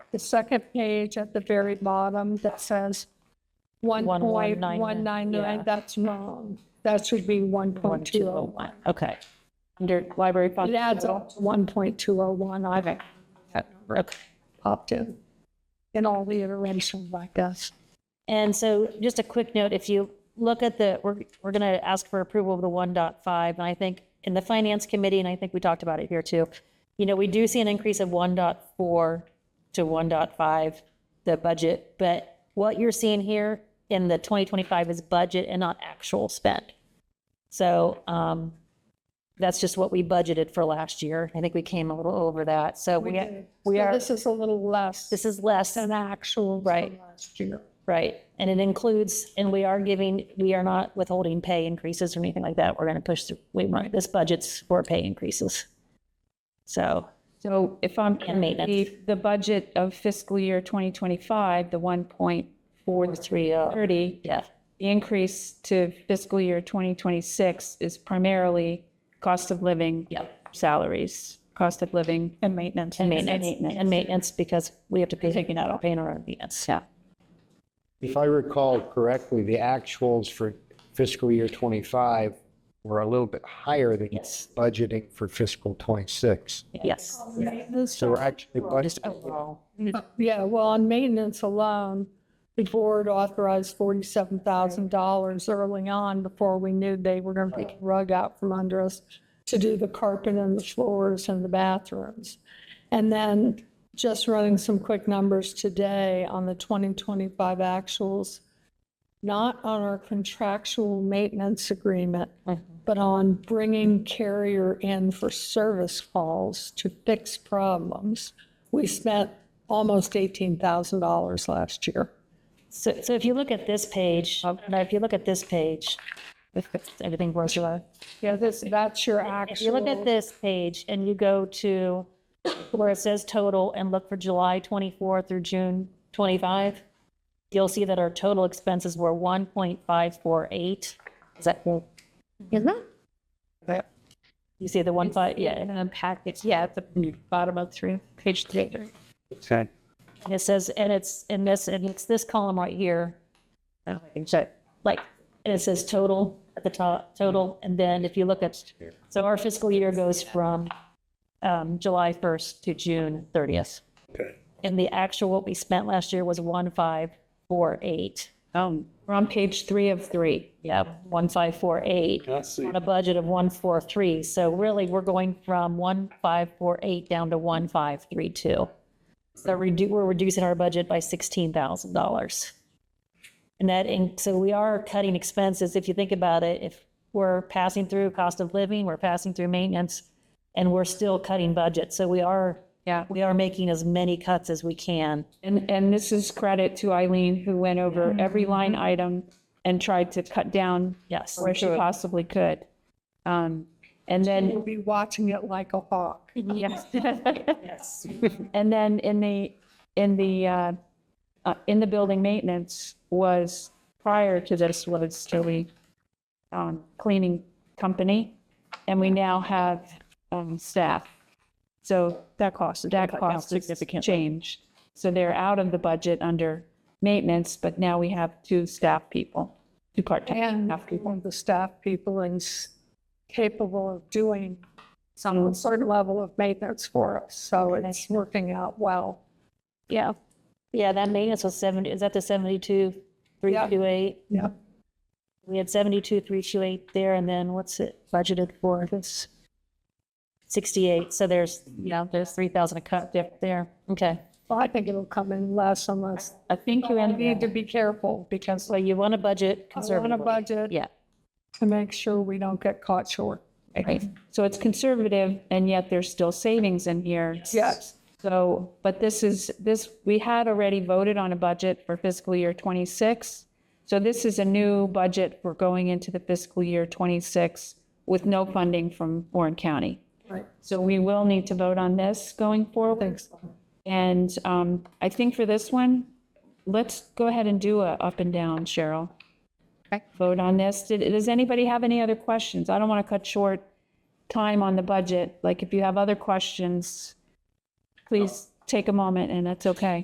the second page at the very bottom that says one One one point nine one nine nine, nine, yeah. that's wrong. That should be one point two oh one. 1201, okay. Under library It funds. adds up to one point two oh one, I've Okay. popped in, in all the iterations like this. And so just a quick note, if you look at the, we're, we're going to ask for approval of the 1.5. And I think in the finance committee, and I think we talked about it here too, you know, we do see an increase of 1.4 to 1.5, the budget. But what you're seeing here in the 2025 is budget and not actual spend. So um, that's just what we budgeted for last year. I think we came a little over that. So we, we So are, This is a little less this is less. than actual. Right. Last year. Right, and it includes, and we are giving, we are not withholding pay increases or anything like that. We're going to push through, we, this budget's for pay increases. So, So if I'm, And maintenance. the, the budget of fiscal year 2025, the 1.430, three, uh, yeah, the increase to fiscal year 2026 is primarily cost of living. yeah. Salaries, cost of living. And maintenance. And maintenance, and maintenance, because we have to pay, taking out our paying our own maintenance. Yeah. If I recall correctly, the actuals for fiscal year 25 were a little bit higher than Yes. budgeting for fiscal 26. Yes. So we're actually budgeting overall. Yeah, well, on maintenance alone, the board authorized forty-seven thousand dollars early on before we knew they were gonna take the rug out from under us to do the carpet and the floors and the bathrooms. And then just running some quick numbers today on the twenty twenty-five actuals, not on our contractual maintenance agreement, but on bringing carrier in for service calls to fix problems. We spent almost $18,000 last year. So, so if you look at this page, now if you look at this page, everything works, Sheila? Yeah, this, that's your actual. If you look at this page and you go to where it says total and look for July 24 through June 25, you'll see that our total expenses were 1.548. Is that cool? Is that? You see the one five, yeah. And package, yeah, at the bottom of three, page three. it. And it says, and it's in this, and it's this column right here. I don't know if I can show it. Like, and it says total at the top, total, and then if you look at, so our fiscal year goes from um, July 1st to June 30th. And the actual, what we spent last year was 1,548. Um, We're on page three of three. Yeah, 1,548 on a budget of 143. So really, we're going from 1,548 down to 1,532. So redu- we're reducing our budget by $16,000. And that, in- so we are cutting expenses. If you think about it, if we're passing through cost of living, we're passing through maintenance, and we're still cutting budget. So we are, Yeah. we are making as many cuts as we can. And, and this is credit to Eileen, who went Mm-hmm. over every line item and tried to cut down Yes. where she possibly could. Um, And then We'll be watching it like a hawk. Yes. And then in the, in the, uh, uh, in the building maintenance was, prior to this was Tilly um, Cleaning Company, and we now have um, staff. So that cost, that cost is changed. So they're out of the budget under maintenance, but now we have two staff people, two part-time And staff people. one of the staff people is capable of doing some certain level of maintenance for us. So it's working out well. Yeah. Yeah, that maintenance was 70, is that the 72, 328? Yeah. We had seventy-two, three two eight there, and then what's it budgeted for? This sixty-eight, so there's, you know, there's three thousand a cut dip there. Okay. Well, I think it'll come in less unless, I think you I ended need to be careful because So you want a budget I want a conservative. budget Yeah, to make sure we don't get caught short. right. So it's conservative, and yet there's still savings in here. Yes. So, but this is, this, we had already voted on a budget for fiscal year 26. So this is a new budget for going into the fiscal year 26 with no funding from Warren County. Right. So we will need to vote on this going forward. Thanks. And um, I think for this one, let's go ahead and do a up and down, Cheryl. Vote on this. Did- Does anybody have any other questions? I don't want to cut short time on the budget. Like, if you have other questions, please take a moment, and that's okay.